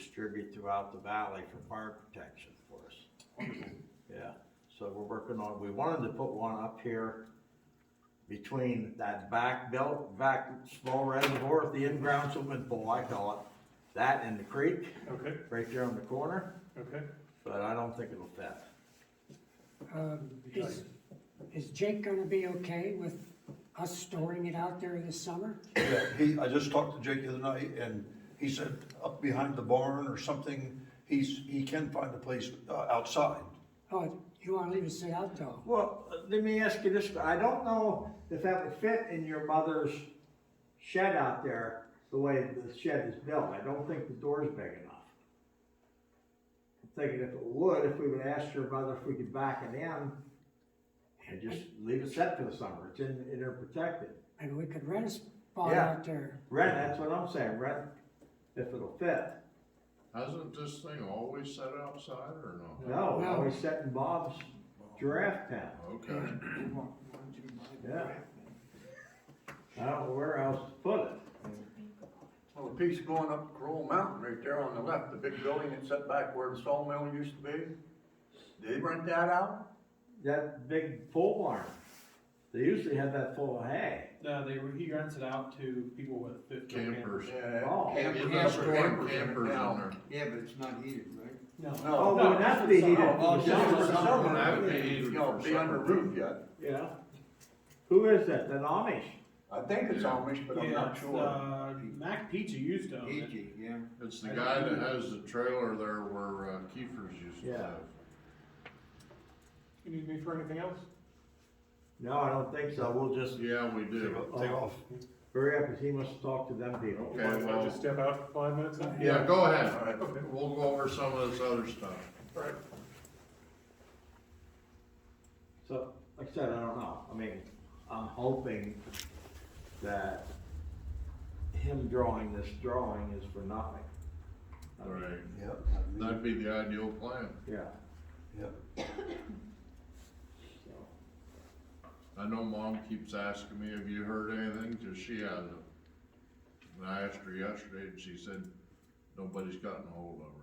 distribute throughout the valley for fire protection for us. Yeah, so we're working on, we wanted to put one up here between that back belt, back small reservoir at the in-ground swimming pool, I call it, that and the creek, Okay, right there on the corner, okay. but I don't think it'll fit. Um, Is, is Jake gonna be okay with us storing it out there this summer? Yeah, he, I just talked to Jake the other night, and he said up behind the barn or something, he's, he can find a place uh, outside. Oh, you wanna leave us it out though? Well, uh, let me ask you this, I don't know if that would fit in your mother's shed out there, the way the shed is built, I don't think the door's big enough. I'm Thinking if it would, if we would ask your mother if we could back it in, and just leave it set for the summer, it's in, in there protected. Maybe we could rent a spot Yeah. out there. Rent, that's what I'm saying, rent, if it'll fit, Hasn't this thing always set outside or no? no, No. always set in Bob's giraffe pen, Okay, yeah. I don't know where else to put it. Well, the piece going up Crowell Mountain right there on the left, the big building that's set back where the sawmill used to be, did they rent that out? that big pole barn. They usually have that full of hay. No, they, he rents it out to people with fifty campers. campers. Yeah. Oh. campers- You're not storing campers in it campers now. in there. Yeah, but it's not heated, right? No, No. Oh, it would have to be heated. Oh, Just just for for summer. summer, That would be heated you know, for be under summer. roof yet. Yeah. Who is that? The Amish? I think it's Amish, but I'm yeah, not it's, sure. uh, Mac Pizza used to own it. Heat, yeah. It's the guy that has the trailer there where uh, Kiefer's used to Yeah. live. You need me for anything else? No, I don't think so. We'll just Oh, Yeah, we Take do. off- take off. hurry up because he must talk to them people. Okay, Can I well- just step out for five minutes? now? Yeah, go ahead. All right. We'll go over some of this other stuff. Right. So, like I said, I don't know. I mean, I'm hoping that him drawing this drawing is for nothing. I mean, Right. Yep, That'd be the ideal plan. Yeah, yep. so. I know mom keeps asking me, have you heard anything? Cause she hasn't. And I asked her yesterday and she said, nobody's gotten hold of her.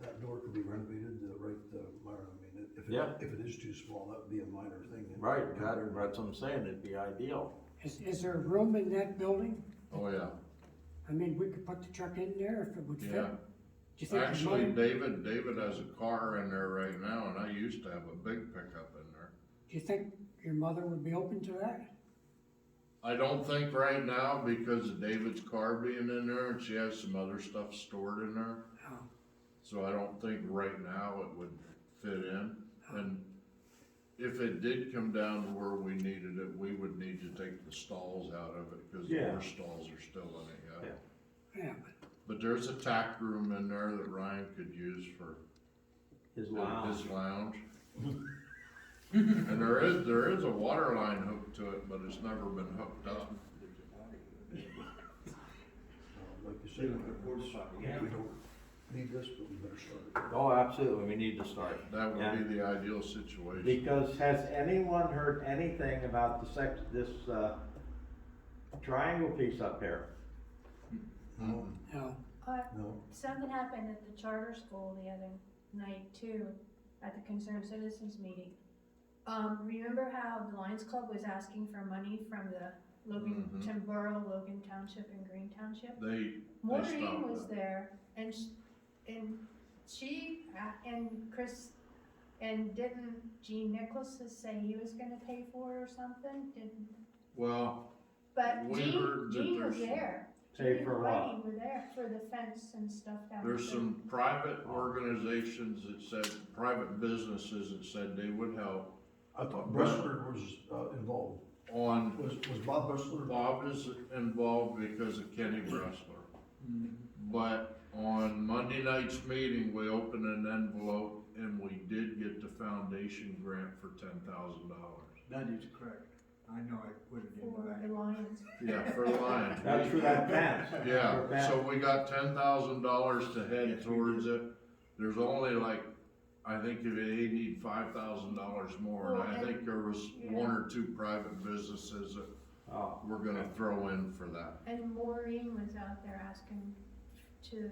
That door could be renovated, uh, right, uh, Myron, I mean, if Yeah. it, if it is too small, that'd be a minor thing. Uh, Right, that, that's what I'm saying. It'd be ideal. Is, is there room in that building? Oh, yeah. I mean, we could put the truck in there if it would fit. Yeah. Do you think it's Actually, mine- do David, David has a car in there right now, and I used to have a big pickup in there. you think your mother would be open to that? I don't think right now, because of David's car being in there, and she has some other stuff stored in there, Oh, so I don't think right now it would fit in. And if it did come down to where we needed it, we would need to take the stalls out of it, because the Yeah. horse stalls are still in it, yeah. Yeah. yeah, But there's a tack room in there that Ryan could use for His in lounge. His lounge. And there is, there is a water line hooked to it, but it's never been hooked up. Like you say, we don't need this, but we better start it. Oh, absolutely. We need to start. That Yeah. would be the ideal situation. Because has anyone heard anything about the sex, this, uh, triangle piece up here? No, no. Uh, no, something happened at the charter school the other night too, at the concerned citizens meeting. Um, remember how the Lions Club was asking for money from the Logan, Mhm. Tim Borough, Logan Township and Green Township? They, Maureen stopped was that. there and sh- and she, uh, and Chris, and didn't Gene Nicholas say he was gonna pay for it or something? Didn't, well, but We Gene, heard that Gene was there's- there. Pay Gene for and what? Whitey Were there for the fence and stuff down there. there's some private organizations that said, private businesses that said they would help I thought Bressler was, uh, involved, on, was, was Bob Bressler? Bob is involved because of Kenny Bressler. But on Monday night's meeting, we opened an envelope and we did get the foundation grant for ten thousand dollars. That is correct. I know I put it in For my. the Lions. Yeah, for Lions. That's for that fence. For Yeah, fence. so we got ten thousand dollars to head Yes, we towards it. There's only like, I think they need five thousand dollars more, and Well, I and- think there was one or two private businesses that Oh. we're gonna throw in for that. And Maureen was out there asking to